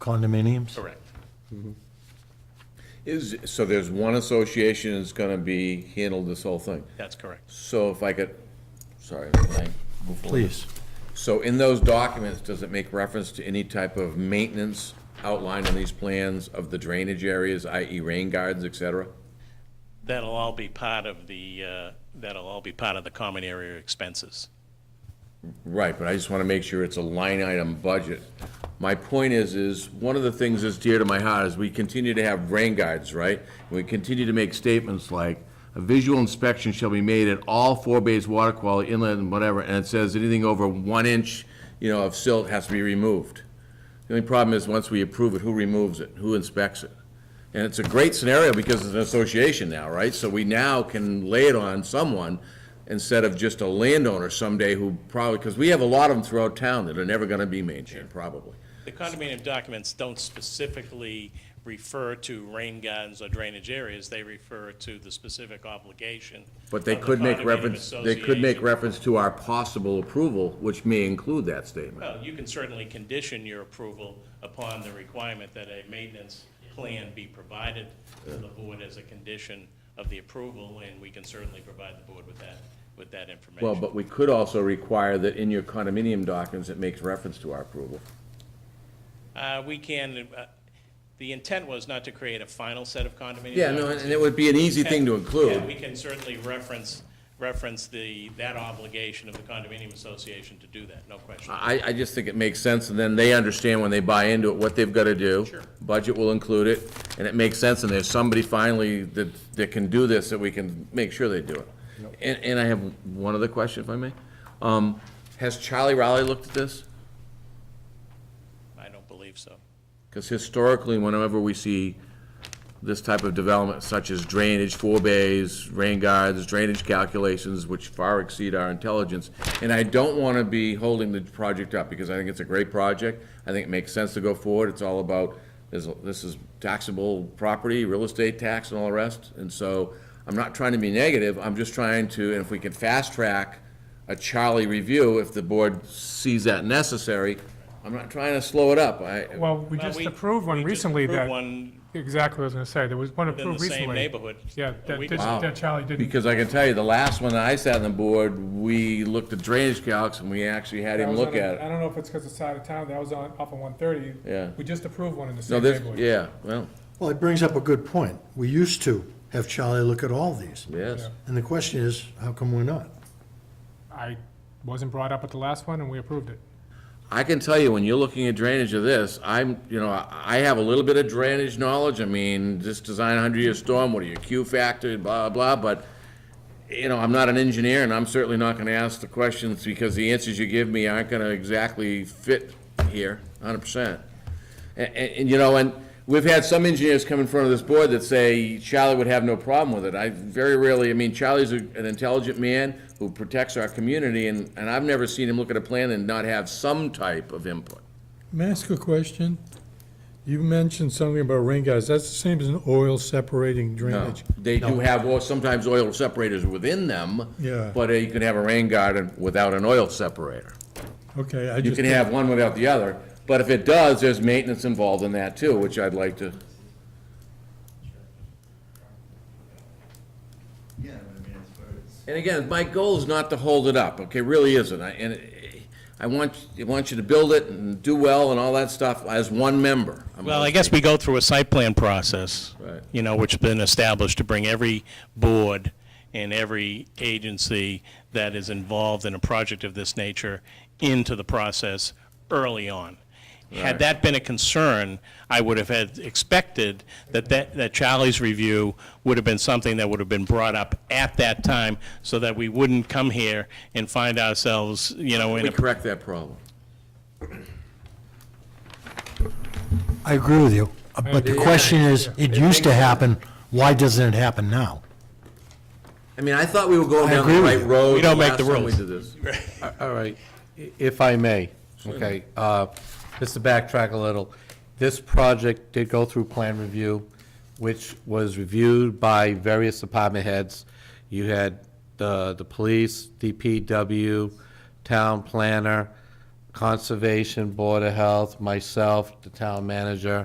condominiums? Correct. Is, so there's one association that's gonna be, handle this whole thing. That's correct. So if I could, sorry, can I move forward? Please. So in those documents, does it make reference to any type of maintenance outlined in these plans of the drainage areas, i.e. rain gardens, et cetera? That'll all be part of the, uh, that'll all be part of the common area expenses. Right, but I just want to make sure it's a line item budget. My point is, is one of the things that's dear to my heart is we continue to have rain guards, right? We continue to make statements like, a visual inspection shall be made at all four bays water quality inlet and whatever, and it says anything over one inch, you know, of silt has to be removed. The only problem is, once we approve it, who removes it? Who inspects it? And it's a great scenario because it's an association now, right? So we now can lay it on someone instead of just a landowner someday who probably, because we have a lot of them throughout town that are never gonna be maintained, probably. The condominium documents don't specifically refer to rain gardens or drainage areas. They refer to the specific obligation. But they of the could make condominium reference, they could make association. reference to our possible approval, which may include that statement. Well, you can certainly condition your approval upon the requirement that a maintenance plan be provided to the board as a condition of the approval, and we can certainly provide the board with that, with that information. Well, but we could also require that in your condominium documents, it makes reference to our approval. Uh, we can, uh, the intent was not to create a final set of condominium. Yeah, no, documents. and it would be an easy thing to Yeah, we include. can certainly reference, reference the, that obligation of the condominium association to do that, no question. I, I just think it makes sense, and then they understand when they buy into it, what they've gotta do. Sure. Budget will include it, and it makes sense, and there's somebody finally that, that can do this, that we can make sure they do it. And, and I have one other question, if I may. Um, has Charlie Rowley looked at this? I don't believe so. Because historically, whenever we see this type of development, such as drainage, four bays, rain guards, drainage calculations, which far exceed our intelligence, and I don't want to be holding the project up, because I think it's a great project, I think it makes sense to go forward, it's all about, this this is taxable property, real estate tax and all the rest, and so, I'm not trying to be negative, I'm just trying to, and if we can fast-track a Charlie review, if the board sees that necessary, I'm not trying to slow it up, I, Well, we Well, just approved one we just recently approved that, one exactly what I was going to say, there was one in the approved same recently. neighborhood. Yeah, a that week did- ago. that Charlie didn't, Because I can tell you, the last one that I sat on the board, we looked at drainage calcs and we actually had I him was look on a- at I it. don't know if it's because it's out of town, that was on, off of 130. Yeah. We just approved one in No, the same this, neighborhood. yeah, well, Well, it brings up a good point. We used to have Charlie look at all these. yes. And the question is, how come we're not? I wasn't brought up at the last one, and we approved it. I can tell you, when you're looking at drainage of this, I'm, you know, I I have a little bit of drainage knowledge. I mean, just design a hundred-year storm, what are your Q factor, blah, blah, but, you know, I'm not an engineer and I'm certainly not gonna ask the questions because the answers you give me aren't gonna exactly fit here, hundred percent. And, and, you know, and we've had some engineers come in front of this board that say Charlie would have no problem with it. I very rarely, I mean, Charlie's a- an intelligent man who protects our community, and, and I've never seen him look at a plan and not have some type of input. May I ask a question? You mentioned something about rain guards. That's the same as an oil separating No, drainage. They do have, well, sometimes oil separators within them. Yeah. But uh, you can have a rain garden without an oil separator. Okay, I You just, can have one without the other, but if it does, there's maintenance involved in that too, which I'd like to, Yeah, I mean, as far as, And again, my goal is not to hold it up, okay, really isn't. I- And I want, I want you to build it and do well and all that stuff as one member. I'm Well, I guess we go through a site plan process. Right. You know, which has been established to bring every board and every agency that is involved in a project of this nature into the process early on. Had that been a concern, I would have had expected that that, that Charlie's review would have been something that would have been brought up at that time so that we wouldn't come here and find ourselves, you know, in We a correct that problem. I agree with you, uh, but the question is, it used to happen, why doesn't it happen now? I mean, I thought we were going I down the agree with right you. road. We don't make the last time we rules. did this. All right, i- if I may, okay, uh, just to backtrack a little, this project did go through plan review, which was reviewed by various department heads. You had the, the police, DPW, town planner, Conservation, Board of Health, myself, the town manager,